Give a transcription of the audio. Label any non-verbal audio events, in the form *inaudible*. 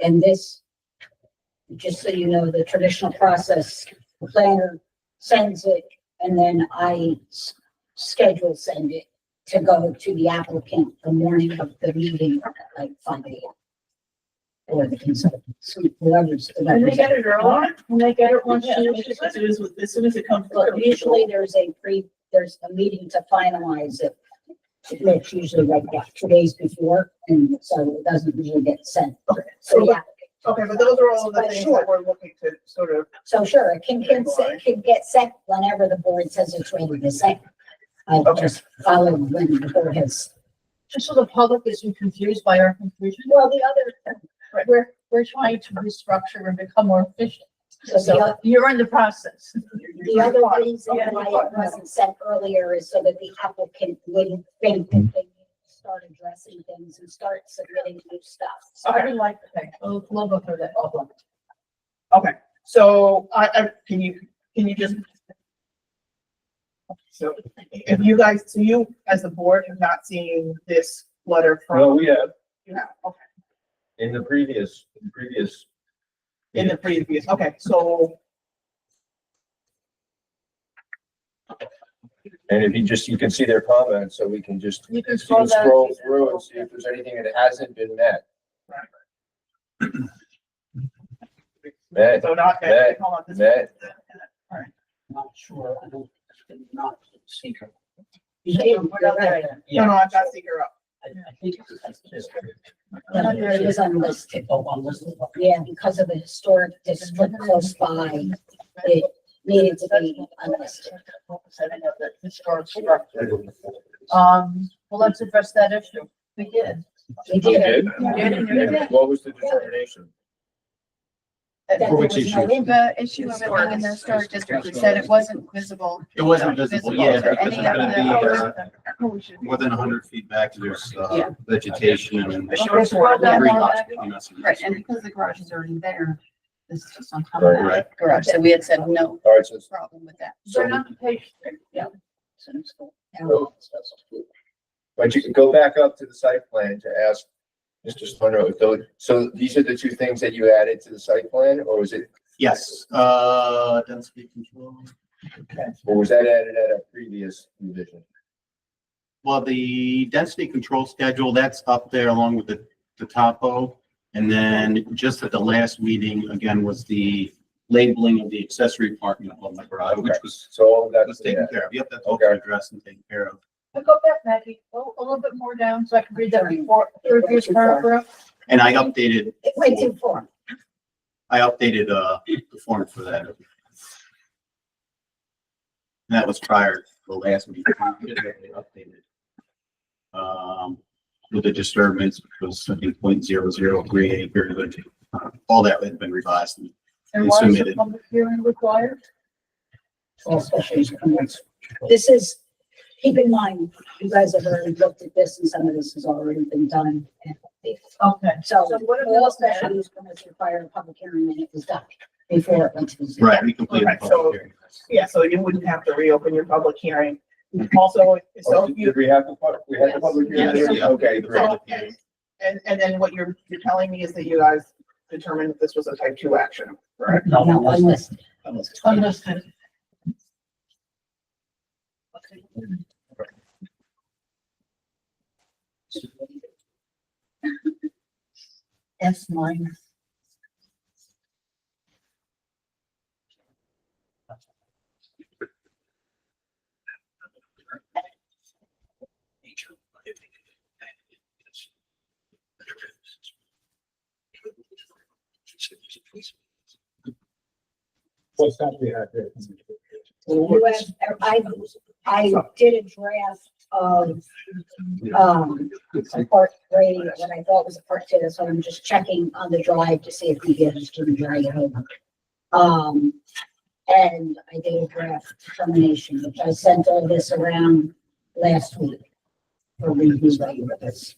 And this, just so you know, the traditional process, the planner sends it and then I s- schedule send it to go to the applicant the morning of the meeting, like five AM. Or the consultants, whoever's. the When they get it early, when they get it once, Yeah. as soon as, as soon as it comes But through. usually there's a pre, there's a meeting to finalize it. It's usually like about two days before, and so it doesn't usually get sent. So, yeah, Okay, but those are all the But things sure. that we're looking to sort of, so sure, it can, can, se- it can get sent whenever the board says it's ready to send. I Okay. just follow when the board has, Just so the public isn't confused by our confusion, well, the other, we're, we're trying to restructure and become more efficient. so the So other, you're in the process. *laughs* the other reason why it wasn't sent earlier is so that the applicant wouldn't think that they start addressing things and start submitting new stuff. So I would like to thank, oh, love for that. okay, so I, I, can you, can you just? So if you guys, so you as the board have not seen this letter Well, from, we have, you have, okay, in the previous, previous. in the previous, okay, so, And if you just, you can see their comments, so we can just You can you can scroll down. scroll through and see if there's anything that hasn't been met. Met, so not, That- hold on, this- met, not sure, I don't, I did not see her. Yeah, you're right. no, no, I've got to figure out. I, I think it's, that's just. Yeah, there it is unlisted. Oh, on this one. Yeah, because of the historic district close by, it needed to be unlisted. Setting up that historic structure. Um, well, let's address that issue. We did. We you did. did? Yeah. And What was the determination? For which There was no issue? in- The issue of it being in the historic district, we said it wasn't visible. It wasn't visible, yeah, for because it's any of gonna be, uh, the. more than hundred feet back, there's, Yeah. uh, vegetation and. Sure, scroll down Every more lot's back. gonna be messy. Right, and because the garage is already there, this is just on top of Right, that garage, so we had said no All right, so, it's- problem with that. They're not the patient. but you can go back up to the site plan to ask Mr. Splinter, if those, so these are the two things that you added to the site plan, or was it, Yes, uh, density control. or was that added at a previous revision? Well, the density control schedule, that's up there along with the, the topo. And then just at the last meeting, again, was the labeling of the accessory apartment on the garage, which Okay. was, So all of that was taken care of. Yep, that's all Okay. addressed and taken care of. Go back, Maggie, go a little bit more down so I can read that report, third paragraph. And I updated, It went too far. I updated, uh, the form for that. And that was prior to the last meeting. Updated. Um, with the disturbance, which was, I think, point zero zero three acre, but, uh, all that had been revised. And why is a Submitted. public hearing required? All special use permits. This is, keep in mind, you guys have already looked at this and some of this has already been done. and updated. Okay. So So what are we all looking at? special use permits require a public hearing and it was done before it went to the. ZBA. Right, we completed. the Right, so- public hearing. Yeah, so you wouldn't have to reopen your public hearing. Also, so Oh, if Did you, did we have the, pub- we had the Yes. public hearing? Yes. there? Okay, The great. public hearing. and, and then what you're, you're telling me is that you guys determined that this was a type two action. No, unlisted. Understood. That's mine. What's that we had there? You asked- I, I did a draft of, um, a part three, what I thought was a part two, so I'm just checking on the drive to see if we get it to drag it over. Um, and I did a draft termination, which I sent all this around last week. For review by you with this.